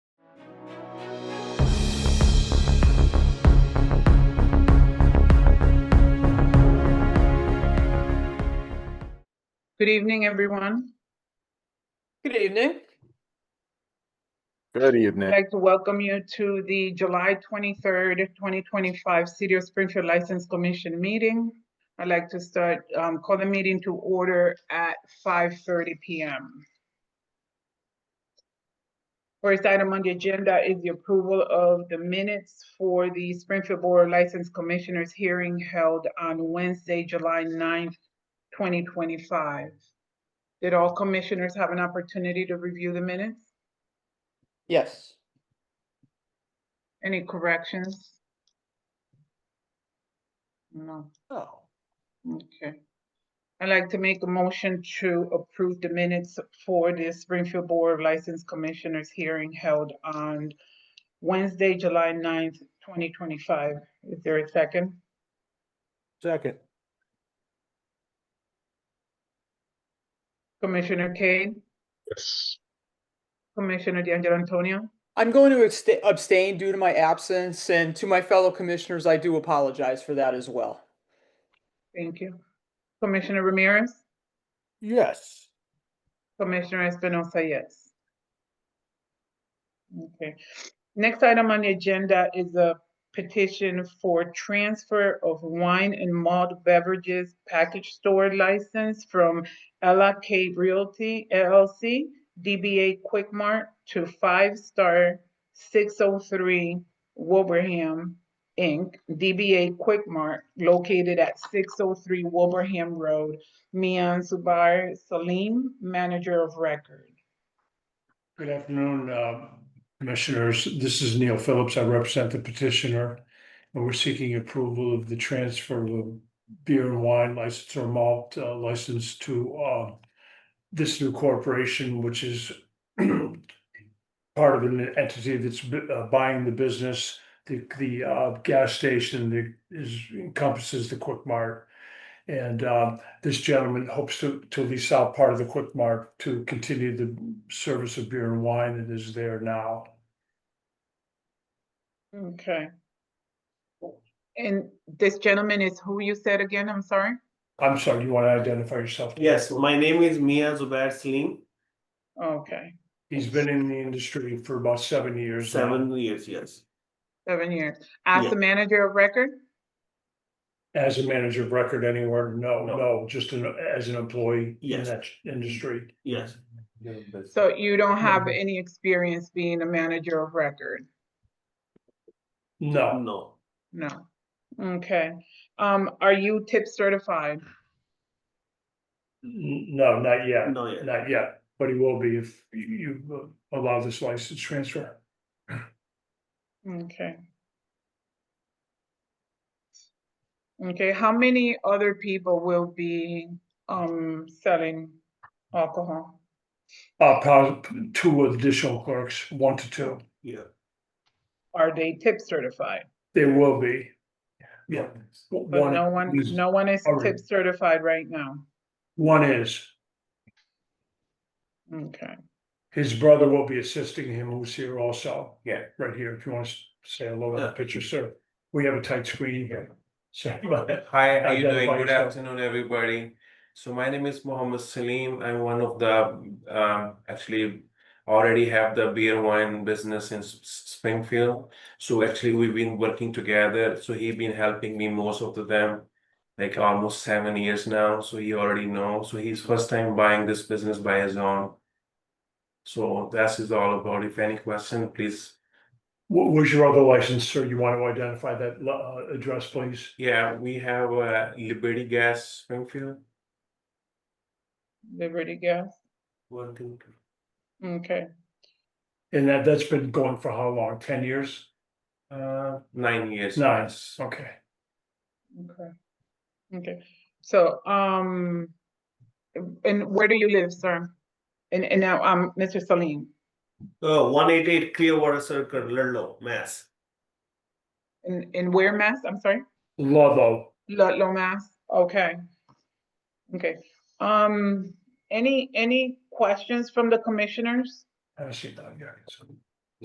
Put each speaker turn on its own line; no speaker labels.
Good evening, everyone.
Good evening.
I'd
Good evening.
like to welcome you to the July 23rd, 2025 City of Springfield License Commission meeting. I'd like to start, um, call the meeting to order at 5:30 PM. First item on the agenda is the approval of the minutes for the Springfield Board of License Commissioners hearing held on Wednesday, July 9th, 2025. Did all commissioners have an opportunity to review the minutes?
Yes.
Any corrections? No,
Oh,
okay. I'd like to make a motion to approve the minutes for the Springfield Board of License Commissioners hearing held on Wednesday, July 9th, twenty twenty-five. Is there a second?
Second,
Commissioner Kane?
Yes.
Commissioner D'Angelo Antonio?
I'm going to absta- abstain due to my absence, and to my fellow commissioners, I do apologize for that as well.
Thank you. Commissioner Ramirez?
yes.
Commissioner Espinosa, yes. Okay, next item on the agenda is a petition for transfer of wine and malt beverages package store license from Ella K Realty LLC, DBA Quick Mart to Five Star Six Oh Three Wilbraham Inc., DBA Quick Mart located at six oh three Wilbraham Road, Mian Subair Salim, manager of record.
Good afternoon, uh, Commissioners. This is Neil Phillips. I represent the petitioner. And we're seeking approval of the transfer of a beer and wine license or malt uh, license to uh, this new corporation, which is part of an entity that's bu- uh, buying the business, the, the uh, gas station that is encompasses the Quick Mart. And uh, this gentleman hopes to, to lease out part of the Quick Mart to continue the service of beer and wine that is there now.
Okay. And this gentleman is who you said again, I'm sorry?
I'm sorry, you want to identify yourself?
Yes, my name is Mia Zubair Salim,
Okay,
He's been in the industry for about seven years now
seven years, yes.
seven years. As
Yeah.
the manager of record?
as a manager of record anywhere. No,
No.
no, just an- as an employee in
Yes.
that industry.
Yes,
So you don't have
Mhm.
any experience being a manager of record?
No,
no,
No. Okay. Um, are you tip certified?
N- no, not yet,
no, yeah.
not yet, but he will be if you- you uh, allow this license transfer.
Okay. Okay, how many other people will be, um, selling alcohol?
Uh, pos- two additional clerks, one to two.
yeah.
Are they tip certified?
They will be. Yeah.
But no one,
is-
no one is
already.
tip certified right now.
One is,
Okay,
his brother will be assisting him, who's here also.
Yeah.
Right here, if you want to say hello to the
Yeah.
picture, sir. We have a tight screen here. Sorry about that.
Hi, how you doing?
Identify
Good
yourself.
afternoon, everybody. So my name is Mohammed Salim. I'm one of the um, actually already have the beer wine business in S- S- Springfield. So actually, we've been working together. So he been helping me most of the them, like almost seven years now. So he already know. So he's first time buying this business by his own. So that is all about. If any question, please.
What was your other license, sir? You want to identify that lo- uh, address, please?
Yeah, we have uh, Liberty Gas Springfield.
Liberty Gas,
One, two, three.
okay,
And that, that's been going for how long? Ten years?
Uh, nine years.
Nine.
yes.
Okay.
okay. Okay, so, um, and where do you live, sir? And, and now, um, Mr. Salim,
Uh, one eighty-eight Clearwater Circle, Ludlow, Mass.
in, in where, Mass? I'm sorry?
Ludlow,
Ludlow, Mass, okay. Okay, um, any, any questions from the commissioners?
I see that, yeah. so-